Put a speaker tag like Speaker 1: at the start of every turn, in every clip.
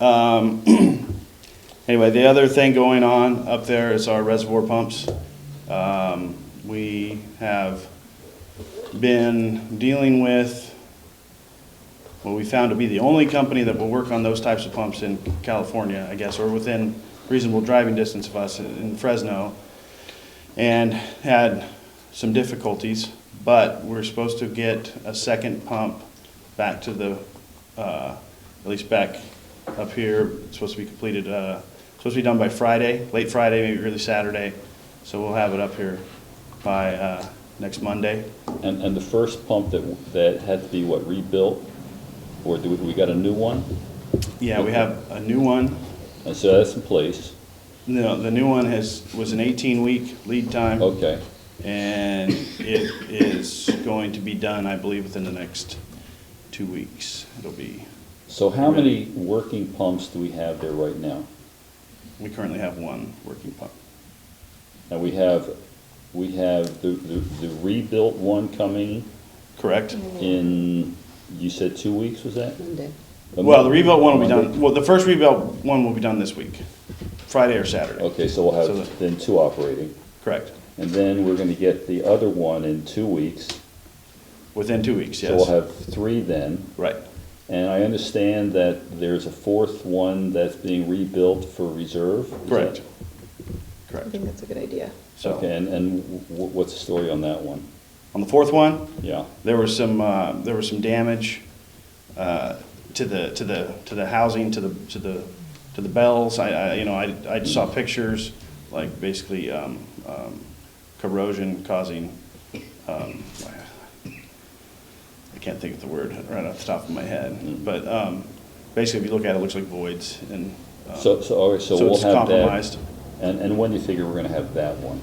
Speaker 1: Um, Anyway, the other thing going on up there is our reservoir pumps. Um, We have been dealing with what we found to be the only company that will work on those types of pumps in California, I guess, or within reasonable driving distance of us in Fresno, and had some difficulties, but we're supposed to get a second pump back to the, uh, at least back up here, It's supposed to be completed, uh, supposed to be done by Friday, late Friday, maybe early Saturday, so we'll have it up here by uh, next Monday.
Speaker 2: And, and the first pump that, that had to be what, rebuilt? Or do we, we got a new one?
Speaker 1: Yeah, we have a new one.
Speaker 2: And so that's in place,
Speaker 1: No, the new one has, was an 18-week lead time,
Speaker 2: okay.
Speaker 1: and it is going to be done, I believe, within the next two weeks. It'll be,
Speaker 2: So how many working pumps do we have there right now?
Speaker 1: we currently have one working pump.
Speaker 2: And we have, we have the, the the rebuilt one coming
Speaker 1: Correct?
Speaker 2: Mm-hmm. in, you said two weeks, was that?
Speaker 3: Monday.
Speaker 1: Well, the rebuilt one will be done, well, the first rebuilt one will be done this week, Friday or Saturday.
Speaker 2: Okay, so we'll
Speaker 1: So
Speaker 2: have
Speaker 1: the-
Speaker 2: then two operating.
Speaker 1: Correct.
Speaker 2: And then we're gonna get the other one in two weeks.
Speaker 1: Within two weeks,
Speaker 2: So we'll
Speaker 1: yes.
Speaker 2: have three then.
Speaker 1: Right.
Speaker 2: And I understand that there's a fourth one that's being rebuilt for reserve? is that-
Speaker 1: Correct.
Speaker 3: I
Speaker 1: Correct.
Speaker 3: think that's a good idea.
Speaker 2: Okay,
Speaker 1: So,
Speaker 2: and, and wh- wh- what's the story on that one?
Speaker 1: on the fourth one,
Speaker 2: Yeah,
Speaker 1: There was some, uh, there was some damage uh, to the, to the, to the housing, to the, to the, to the bells. I, I, you know, I, I saw pictures, like basically um, um, corrosion causing, um, I can't think of the word right off the top of my head. But um, basically, if you look at it, it looks like voids and. um,
Speaker 2: so, so, all right, so
Speaker 1: So
Speaker 2: we'll
Speaker 1: it's
Speaker 2: have that.
Speaker 1: compromised.
Speaker 2: And, and when do you figure we're gonna have that one?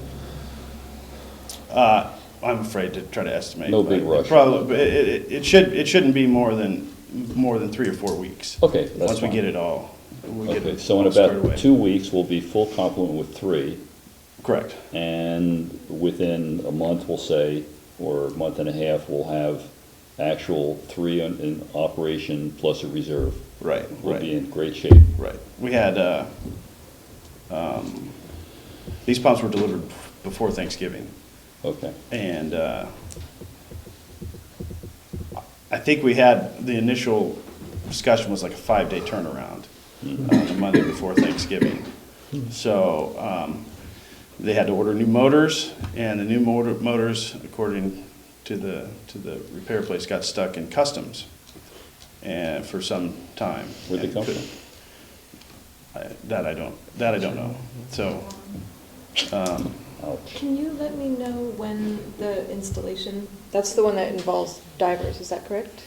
Speaker 1: Uh, I'm afraid to try to estimate.
Speaker 2: No big
Speaker 1: but
Speaker 2: rush.
Speaker 1: Probably, it, it, it should, it shouldn't be more than, more than three or four weeks.
Speaker 2: Okay, that's
Speaker 1: Once we
Speaker 2: fine.
Speaker 1: get it all, we get
Speaker 2: Okay,
Speaker 1: it
Speaker 2: so in
Speaker 1: all squared away.
Speaker 2: about two weeks, we'll be full complement with three,
Speaker 1: Correct,
Speaker 2: and within a month, we'll say, or a month and a half, we'll have actual three in, in operation plus a reserve.
Speaker 1: right,
Speaker 2: We'll be
Speaker 1: right,
Speaker 2: in great shape.
Speaker 1: right. We had, uh, um, these pumps were delivered before Thanksgiving.
Speaker 2: Okay,
Speaker 1: And uh, I think we had, the initial discussion was like a five-day turnaround, uh, the Monday before Thanksgiving. So um, they had to order new motors, and the new motor motors, according to the, to the repair place, got stuck in customs and for some time.
Speaker 2: Where'd they
Speaker 1: and
Speaker 2: come from?
Speaker 1: couldn't- I- That I don't, that I don't know. So,
Speaker 2: ouch.
Speaker 4: Can you let me know when the installation?
Speaker 3: That's the one that involves divers, is that correct?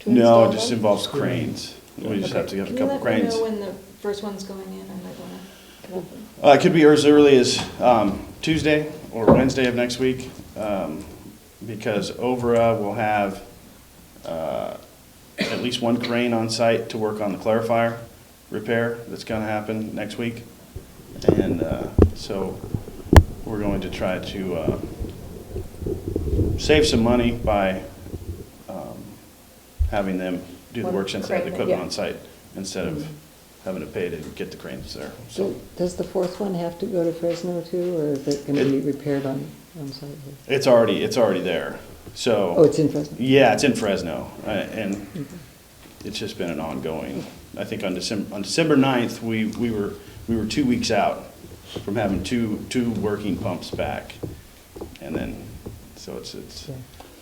Speaker 3: To
Speaker 1: no,
Speaker 3: install
Speaker 1: it just
Speaker 3: them?
Speaker 1: involves cranes. We just have to get a couple cranes.
Speaker 4: Can you let me know when the first one's going in? I might wanna.
Speaker 1: Uh, It could be as early as um, Tuesday or Wednesday of next week, um, because OVRA will have uh, at least one crane on site to work on the clarifier repair that's going to happen next week. And uh, so we're going to try to uh, save some money by um, having them do the
Speaker 3: One
Speaker 1: work since they have the
Speaker 3: crane,
Speaker 1: equipment
Speaker 3: yeah. Mm-hmm.
Speaker 1: on site, instead of having to pay to get the cranes there, so.
Speaker 5: So does the fourth one have to go to Fresno too, or is it gonna be
Speaker 1: It- Oh.
Speaker 5: repaired on, on site?
Speaker 1: It's already, it's already there, so.
Speaker 5: Oh, it's in Fresno?
Speaker 1: Yeah, it's in Fresno, uh, and it's just been an ongoing, I think on December, on December ninth, we, we were, we were two weeks out from having two, two working pumps back, and then, so it's, it's,
Speaker 5: Yeah.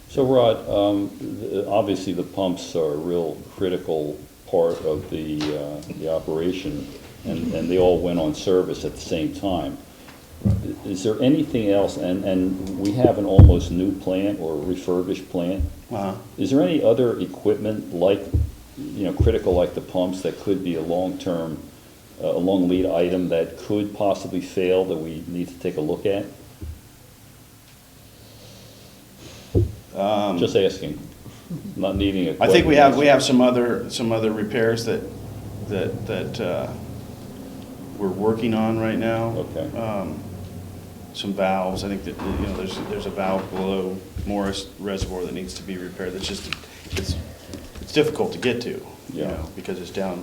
Speaker 2: So Rod, um, th- obviously the pumps are a real critical part of the, uh, the operation, and, and they all went on service at the same time. I- Is there anything else, and, and we have an almost new plant or refurbished plant,
Speaker 1: uh,
Speaker 2: is there any other equipment like, you know, critical like the pumps that could be a long-term, uh, a long lead item that could possibly fail that we need to take a look at? Just asking, not needing a
Speaker 1: Um. I think we have, we have some other, some other repairs that, that, that, uh, we're working on right now.
Speaker 2: Okay.
Speaker 1: Um, Some valves, I think that, you know, there's, there's a valve below Morris Reservoir that needs to be repaired, that's just, it's, it's difficult to get to, you
Speaker 2: Yeah.
Speaker 1: know, because it's down